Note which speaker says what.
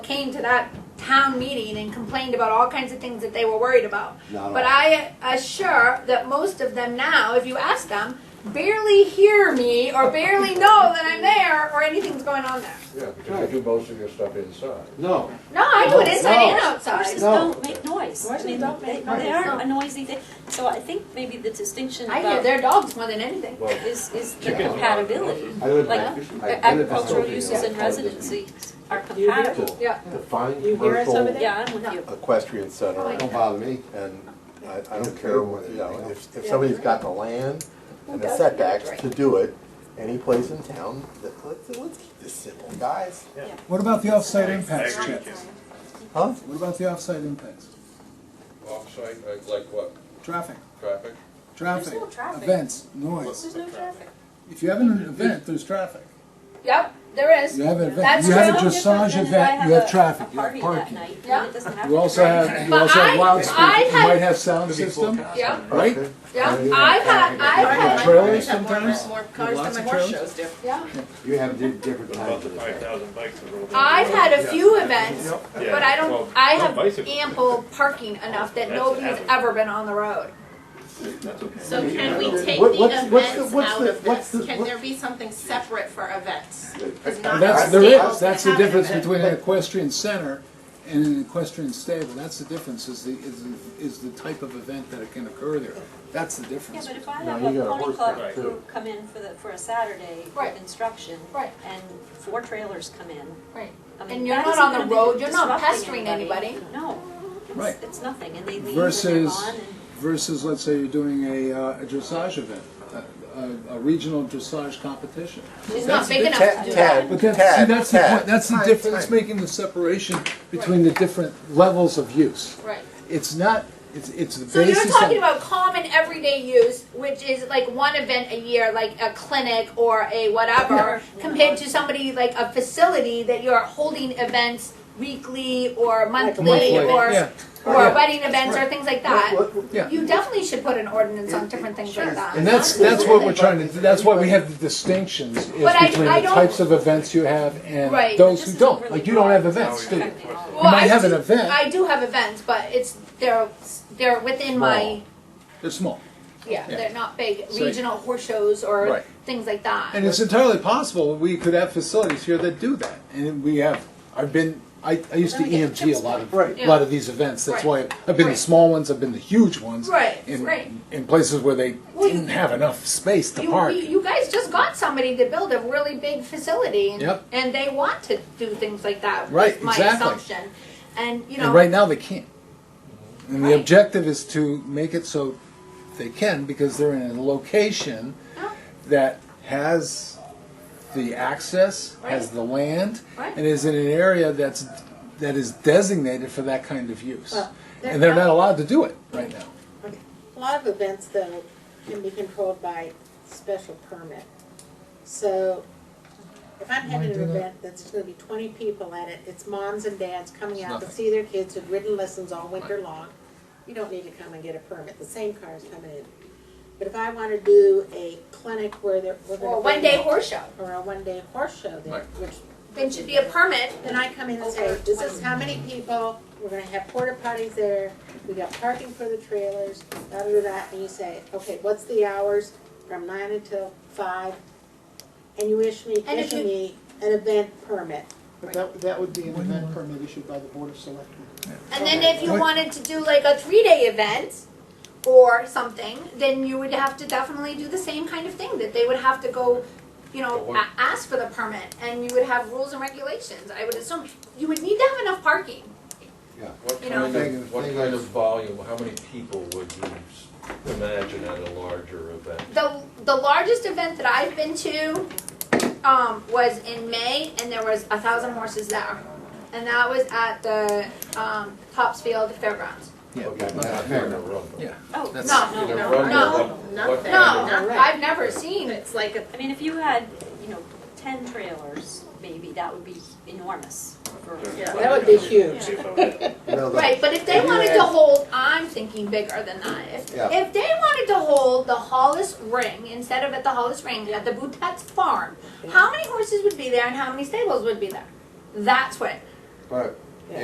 Speaker 1: came to that town meeting and complained about all kinds of things that they were worried about.
Speaker 2: Not all.
Speaker 1: But I assure that most of them now, if you ask them, barely hear me or barely know that I'm there or anything's going on there.
Speaker 3: Yeah, because you do most of your stuff inside.
Speaker 2: No,
Speaker 1: No, I do it
Speaker 2: No,
Speaker 1: inside and
Speaker 2: no.
Speaker 1: outside.
Speaker 4: Horses
Speaker 2: No.
Speaker 4: don't make noise. I
Speaker 5: Horses
Speaker 4: mean,
Speaker 5: don't
Speaker 4: they,
Speaker 5: make
Speaker 4: they
Speaker 5: noise.
Speaker 4: are a noisy thing. So I think maybe the distinction
Speaker 1: I hear
Speaker 4: about
Speaker 1: their dogs more than anything.
Speaker 3: Well,
Speaker 4: is, is the
Speaker 2: Chickens.
Speaker 4: compatibility.
Speaker 2: I live.
Speaker 1: uh,
Speaker 4: Like,
Speaker 2: I live
Speaker 4: Agricultural
Speaker 2: in a
Speaker 4: uses and
Speaker 2: building.
Speaker 4: residency are
Speaker 5: You hear
Speaker 4: compatible.
Speaker 2: To
Speaker 1: Yeah.
Speaker 2: Define
Speaker 5: You hear us over
Speaker 2: commercial,
Speaker 5: there? Oh,
Speaker 4: Yeah, I'm with you.
Speaker 6: equestrian center,
Speaker 2: don't bother me.
Speaker 6: and I, I
Speaker 2: Don't
Speaker 6: don't
Speaker 2: care
Speaker 6: care what,
Speaker 2: what
Speaker 6: you know,
Speaker 2: anything
Speaker 6: if, if somebody's got the land and the setbacks to do it, any place in town, let- let's, let's keep this simple, guys.
Speaker 7: What about the offsite impacts, Chip?
Speaker 6: Huh?
Speaker 7: What about the offsite impacts?
Speaker 3: offsite, uh, like- like what,
Speaker 7: Traffic,
Speaker 3: traffic?
Speaker 7: traffic,
Speaker 4: no traffic.
Speaker 7: events, noise.
Speaker 4: There's no traffic.
Speaker 7: If you have an event, there's traffic.
Speaker 1: Yep, there is.
Speaker 7: You have an event,
Speaker 1: That's
Speaker 7: you have a
Speaker 1: true.
Speaker 7: dressage event, you have traffic, you
Speaker 4: Party
Speaker 7: have
Speaker 4: that
Speaker 7: parking.
Speaker 4: night,
Speaker 1: Yeah.
Speaker 4: and it doesn't have
Speaker 7: You
Speaker 4: to
Speaker 7: also
Speaker 4: be-
Speaker 7: have, you
Speaker 1: But
Speaker 7: also
Speaker 1: I-
Speaker 7: have
Speaker 1: I
Speaker 7: loudspeakers, you
Speaker 1: had-
Speaker 7: might have sound system,
Speaker 1: Yep,
Speaker 7: right?
Speaker 1: yep. I've had, I've
Speaker 7: You have
Speaker 1: had,
Speaker 7: trailers sometimes,
Speaker 5: More
Speaker 7: With
Speaker 5: cars
Speaker 7: lots
Speaker 5: than
Speaker 7: of
Speaker 5: my horse
Speaker 7: trailers?
Speaker 5: shows do.
Speaker 1: yeah.
Speaker 2: You have di- different kinds of
Speaker 8: Five
Speaker 2: things.
Speaker 8: thousand bikes are rolled.
Speaker 1: I've had a few events,
Speaker 8: Yeah,
Speaker 1: but I
Speaker 8: well,
Speaker 1: don't, I
Speaker 8: no
Speaker 1: have
Speaker 8: bicycle.
Speaker 1: ample parking enough that
Speaker 8: That's
Speaker 1: nobody's
Speaker 8: average.
Speaker 1: ever been on the road.
Speaker 5: So can we take
Speaker 6: What-
Speaker 5: the
Speaker 6: what's- what's the-
Speaker 5: events
Speaker 6: what's
Speaker 5: out
Speaker 6: the-
Speaker 5: of
Speaker 6: what's
Speaker 5: this?
Speaker 6: the-
Speaker 5: Can
Speaker 6: what-
Speaker 5: there be something separate for events?
Speaker 7: And that's, there is, that's the difference between an equestrian center and an equestrian stable, that's the difference, is the, is, the- is the type of event that it can occur there. That's the
Speaker 4: Yeah,
Speaker 7: difference.
Speaker 4: but if I
Speaker 6: No,
Speaker 4: have
Speaker 6: you
Speaker 4: a
Speaker 6: got a
Speaker 4: pony
Speaker 6: horse
Speaker 4: club
Speaker 6: there,
Speaker 4: crew
Speaker 6: too.
Speaker 4: come in for the, for a Saturday
Speaker 1: Right.
Speaker 4: with instruction,
Speaker 1: Right.
Speaker 4: and four trailers come in,
Speaker 1: Right.
Speaker 4: I mean,
Speaker 1: And you're
Speaker 4: that
Speaker 1: not
Speaker 4: isn't
Speaker 1: on the
Speaker 4: gonna be
Speaker 1: road, you're not
Speaker 4: disrupting
Speaker 1: pestering anybody.
Speaker 4: No,
Speaker 7: Right.
Speaker 4: it's, it's nothing, and they leave and they're
Speaker 7: Versus,
Speaker 4: gone, and
Speaker 7: versus, let's say you're doing a, uh, a dressage event, a- a, a regional dressage competition.
Speaker 1: It's not big enough to
Speaker 6: Ted,
Speaker 1: do that.
Speaker 7: But
Speaker 6: Ted,
Speaker 7: that's, see, that's the point,
Speaker 6: Ted, Ted.
Speaker 7: that's the difference, that's making the separation between the different levels of use.
Speaker 1: Right.
Speaker 7: It's not, it's, it's the
Speaker 1: So you're
Speaker 7: basis
Speaker 1: talking
Speaker 7: of,
Speaker 1: about common everyday use, which is like one event a year, like a clinic or a whatever, compared to somebody like a facility that you're holding events weekly or monthly
Speaker 7: monthly, yeah.
Speaker 1: or, or
Speaker 7: Yeah.
Speaker 1: wedding events or things like that.
Speaker 6: What- what-
Speaker 7: yeah.
Speaker 1: You definitely should put an ordinance on different things like
Speaker 7: And
Speaker 1: that.
Speaker 7: that's, that's what we're trying to, do. that's why we have the distinctions, is between
Speaker 1: But I- I
Speaker 7: the
Speaker 1: don't-
Speaker 7: types of events you have
Speaker 1: Right,
Speaker 7: and
Speaker 1: but
Speaker 7: those
Speaker 4: this
Speaker 7: who
Speaker 4: isn't
Speaker 7: don't.
Speaker 4: really
Speaker 7: Like, you don't have events, do you? You
Speaker 4: affecting all of us.
Speaker 1: Well, I
Speaker 7: might have an
Speaker 1: do-
Speaker 7: event,
Speaker 1: I do have events, but it's, they're, they're within my,
Speaker 7: they're small.
Speaker 1: yeah,
Speaker 7: Yeah.
Speaker 1: they're not big
Speaker 7: So-
Speaker 1: regional horse shows or
Speaker 7: Right.
Speaker 1: things like that.
Speaker 7: And it's entirely possible we could have facilities here that do that. And we have, I've been, I, I used to
Speaker 4: Then we get
Speaker 7: EMT a
Speaker 4: chips
Speaker 7: lot of,
Speaker 2: Right.
Speaker 7: a lot of these events. That's why
Speaker 1: Right.
Speaker 7: I've been the
Speaker 1: Right.
Speaker 7: small ones, I've been the huge ones.
Speaker 1: Right,
Speaker 7: in-
Speaker 1: right.
Speaker 7: In places where they
Speaker 1: Well, you-
Speaker 7: didn't have enough space to
Speaker 1: You,
Speaker 7: park.
Speaker 1: you- you guys just got somebody to build a really big facility, and,
Speaker 7: Yep.
Speaker 1: and they want to do things like that. was
Speaker 7: Right,
Speaker 1: my
Speaker 7: exactly.
Speaker 1: assumption, and you know,
Speaker 7: And right now, they can't. And the
Speaker 1: Right.
Speaker 7: objective is to make it so they can because they're in a location
Speaker 1: Yeah.
Speaker 7: that has the access, has
Speaker 1: Right.
Speaker 7: the land,
Speaker 1: Right.
Speaker 7: and is in an area that's, that is designated for that kind of use.
Speaker 9: Well,
Speaker 7: And they're not allowed to do it right now.
Speaker 9: A lot of events, though, can be controlled by special permit. So if I'm having an
Speaker 7: do that?
Speaker 9: event that's gonna be twenty people at it, it's moms and dads coming
Speaker 7: It's
Speaker 9: out to
Speaker 7: nothing.
Speaker 9: see their kids who've ridden lessons all winter long, you don't need to come and get a permit, the same car's coming in. But if I wanna do a clinic where they're, we're gonna.
Speaker 1: or a one-day
Speaker 9: bring-
Speaker 1: horse show,
Speaker 9: Or a one-day horse show, then, which.
Speaker 1: then should be a permit.
Speaker 9: Then I come in and say,
Speaker 1: Over
Speaker 9: this is
Speaker 1: 20.
Speaker 9: how many people, we're gonna have porta potties there, we got parking for the trailers, da da da da, and you say, okay, what's the hours from nine until five? And you issue me,
Speaker 1: And if
Speaker 9: issue
Speaker 1: you-
Speaker 9: me an event permit.
Speaker 10: But that, that would be an event permit issued by the Board of Selectmen.
Speaker 1: And then if you
Speaker 7: Right.
Speaker 1: wanted to do like a three-day event or something, then you would have to definitely do the same kind of thing. That they would have to go, you know, a- ask for the permit, and you would have rules and regulations. I would assume you would need to have enough parking.
Speaker 3: What
Speaker 1: You
Speaker 3: kind
Speaker 1: know.
Speaker 3: of, what
Speaker 2: Thing-
Speaker 3: kind of volume, how many people would you s- imagine at a larger event?
Speaker 1: the the largest event that I've been to um, was in May, and there was a thousand horses there, and that was at the um, Topsfield Fairgrounds.
Speaker 7: Yeah.
Speaker 3: Okay, not in a rumble.
Speaker 7: Yeah.
Speaker 4: Oh,
Speaker 7: That's-
Speaker 1: No,
Speaker 4: no,
Speaker 3: In a
Speaker 4: no.
Speaker 3: rumble,
Speaker 1: no,
Speaker 3: what- what
Speaker 5: nothing.
Speaker 1: No,
Speaker 3: kind of-
Speaker 1: I- I've never seen.
Speaker 5: It's like a
Speaker 4: I mean, if you had, you know, ten trailers, maybe that would be enormous for.
Speaker 5: Yeah.
Speaker 9: That would be huge.
Speaker 6: You know, the-
Speaker 1: Right, but if they
Speaker 6: If you
Speaker 1: wanted
Speaker 6: had-
Speaker 1: to hold, I'm thinking bigger than that. If,
Speaker 6: Yeah.
Speaker 1: if they wanted to hold the Hollis Ring instead of at the Hollis Ring at the Boutette's Farm, how many horses would be there and how many stables would be there? That's what
Speaker 2: but